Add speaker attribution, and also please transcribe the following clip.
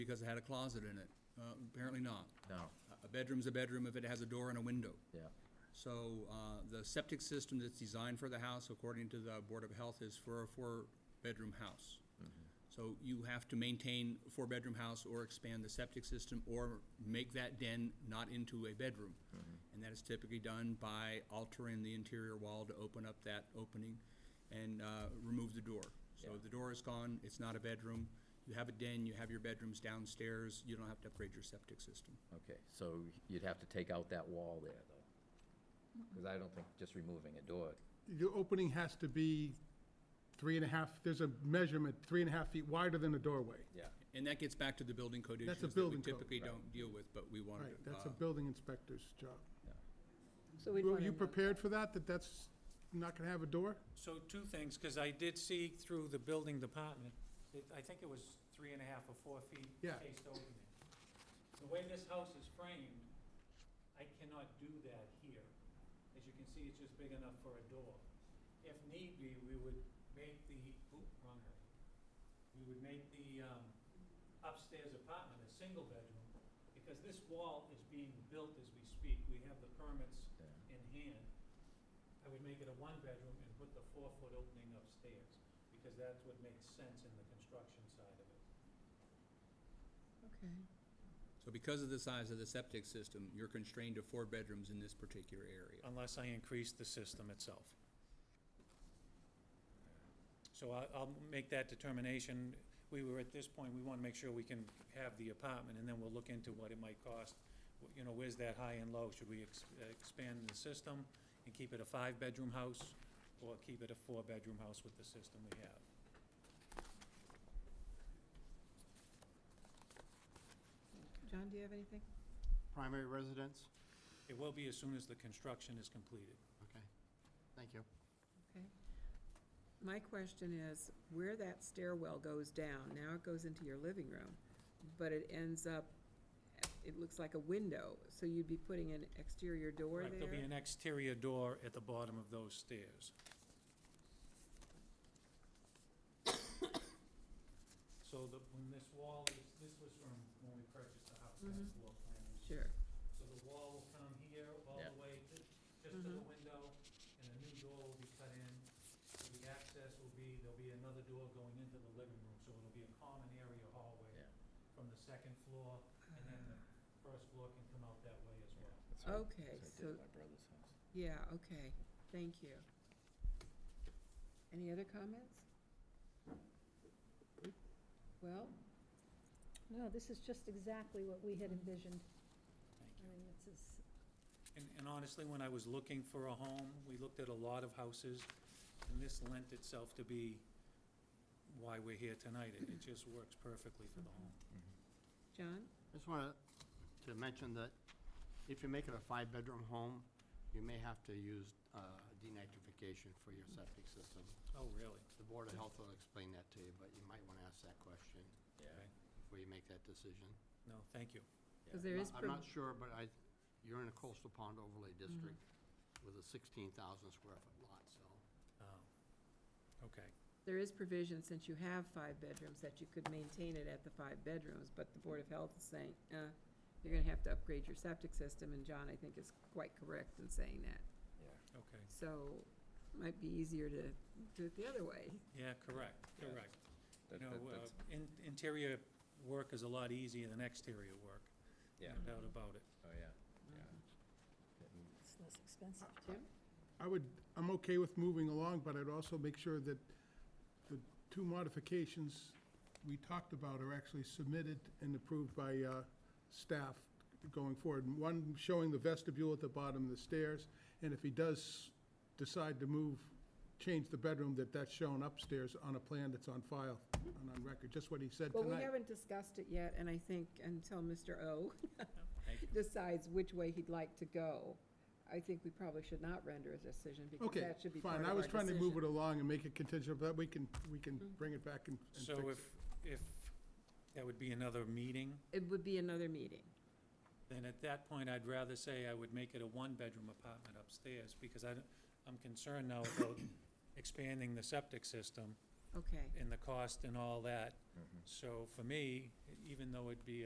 Speaker 1: because it had a closet in it. Uh, Apparently not.
Speaker 2: No,
Speaker 1: A- A bedroom's a bedroom if it has a door and a window.
Speaker 2: yeah,
Speaker 1: So uh, the septic system that's designed for the house, according to the Board of Health, is for a four-bedroom house. So you have to maintain a four-bedroom house or expand the septic system or make that den not into a bedroom. And that is typically done by altering the interior wall to open up that opening and uh, remove the door. So
Speaker 2: Yeah.
Speaker 1: the door is gone, it's not a bedroom. You have a den, you have your bedrooms downstairs, you don't have to upgrade your septic system.
Speaker 2: okay, so you'd have to take out that wall there, though. Because I don't think just removing a door,
Speaker 3: Your opening has to be three and a half, there's a measurement, three and a half feet wider than a doorway.
Speaker 2: yeah,
Speaker 1: And that gets back to the building code
Speaker 3: That's a
Speaker 1: issues that we
Speaker 3: building code.
Speaker 1: typically don't deal with, but we wanted to.
Speaker 3: Right, that's a
Speaker 1: uh,
Speaker 3: building inspector's job.
Speaker 4: So we'd
Speaker 3: Were
Speaker 4: want
Speaker 3: you
Speaker 4: to,
Speaker 3: prepared for that, that that's not gonna have a door?
Speaker 5: So two things, because I did see through the building department, it- I think it was three and a half or four feet
Speaker 3: Yeah.
Speaker 5: spaced opening. The way this house is framed, I cannot do that here. As you can see, it's just big enough for a door. If need be, we would make the, oop, wrong area. We would make the um, upstairs apartment a single bedroom, because this wall is being built as we speak. We have the permits
Speaker 2: yeah.
Speaker 5: in hand, I would make it a one-bedroom and put the four-foot opening upstairs, because that's what makes sense in the construction side of it.
Speaker 4: okay.
Speaker 1: So because of the size of the septic system, you're constrained to four bedrooms in this particular area.
Speaker 5: Unless I increase the system itself. So I, I'll make that determination. We were, at this point, we want to make sure we can have the apartment, and then we'll look into what it might cost. Wh- You know, where's that high and low? Should we ex- expand the system and keep it a five-bedroom house, or keep it a four-bedroom house with the system we have?
Speaker 4: John, do you have anything?
Speaker 6: primary residence?
Speaker 5: It will be as soon as the construction is completed.
Speaker 6: Okay, thank you.
Speaker 4: Okay. My question is, where that stairwell goes down, now it goes into your living room, but it ends up, it looks like a window, so you'd be putting an exterior door
Speaker 5: Right, There'll be
Speaker 4: there?
Speaker 5: an exterior door at the bottom of those stairs. So the, when this wall is, this was from when we purchased the house, that's floor plan.
Speaker 4: Mm-hmm. Sure,
Speaker 5: So the wall will come here all
Speaker 2: Yeah.
Speaker 5: the way ju- just to the window, and a new door will be cut in. So The access will be, there'll be another door going into the living room, so it'll be a common area
Speaker 2: Yeah.
Speaker 5: hallway from the second floor, and then the first floor can come out that way as well.
Speaker 2: That's what I-
Speaker 4: Okay,
Speaker 2: that's what I did at
Speaker 4: so-
Speaker 2: My brother's house.
Speaker 4: yeah, okay, thank you. Any other comments? Well,
Speaker 7: No, this is just exactly what we had envisioned.
Speaker 5: Thank
Speaker 7: I mean, it's as
Speaker 5: And, and honestly, when I was looking for a home, we looked at a lot of houses, and this lent itself to be why we're here tonight. It, it just works perfectly for the home.
Speaker 4: John?
Speaker 6: Just wanted to mention that if you make it a five-bedroom home, you may have to use uh, denitrification for your septic system.
Speaker 2: Mm-hmm.
Speaker 5: Oh, really?
Speaker 6: The Board of Health will explain that to you, but you might want to ask that question
Speaker 2: Yeah,
Speaker 5: Okay.
Speaker 6: before you make that decision.
Speaker 5: No, thank you.
Speaker 4: Because there is,
Speaker 6: I'm not sure, but I, you're in a coastal pond overlay
Speaker 4: Mm-hmm.
Speaker 6: district with a 16,000 square foot lot, so.
Speaker 5: Oh, Okay.
Speaker 4: prov- there is provision, since you have five bedrooms, that you could maintain it at the five bedrooms, but the Board of Health is saying, uh, you're gonna have to upgrade your septic system, and John, I think, is quite correct in saying that.
Speaker 2: yeah.
Speaker 5: Okay.
Speaker 4: So, might be easier to do it the other way.
Speaker 5: Yeah, correct,
Speaker 2: Yeah.
Speaker 5: correct. You
Speaker 2: That-
Speaker 5: know,
Speaker 2: that-
Speaker 5: uh,
Speaker 2: that's-
Speaker 5: in- interior work is a lot easier than exterior work, no
Speaker 2: Yeah,
Speaker 5: doubt about it.
Speaker 2: oh, yeah, yeah.
Speaker 4: Mm.
Speaker 2: Getting-
Speaker 7: it's less expensive.
Speaker 4: Tim?
Speaker 3: I would, I'm okay with moving along, but I'd also make sure that the two modifications we talked about are actually submitted and approved by uh, staff going forward. One showing the vestibule at the bottom of the stairs, and if he does decide to move, change the bedroom, that that's shown upstairs on a plan that's on file and on record, just what he said
Speaker 4: Well,
Speaker 3: tonight.
Speaker 4: we haven't discussed it yet, and I think until Mr. O
Speaker 5: Thank you.
Speaker 4: decides which way he'd like to go, I think we probably should not render a decision, because that should be part of
Speaker 3: Okay, fine, I
Speaker 4: our
Speaker 3: was trying to move it
Speaker 4: decision. Mm-hmm.
Speaker 3: along and make it contingent, but we can, we can bring it back and and fix it.
Speaker 5: So if, if that would be another meeting,
Speaker 4: It would be another meeting.
Speaker 5: then at that point, I'd rather say I would make it a one-bedroom apartment upstairs, because I, don't- I'm concerned now about expanding the septic system
Speaker 4: okay.
Speaker 2: Mm-hmm.
Speaker 5: and the cost and all that. So for me, even though it'd be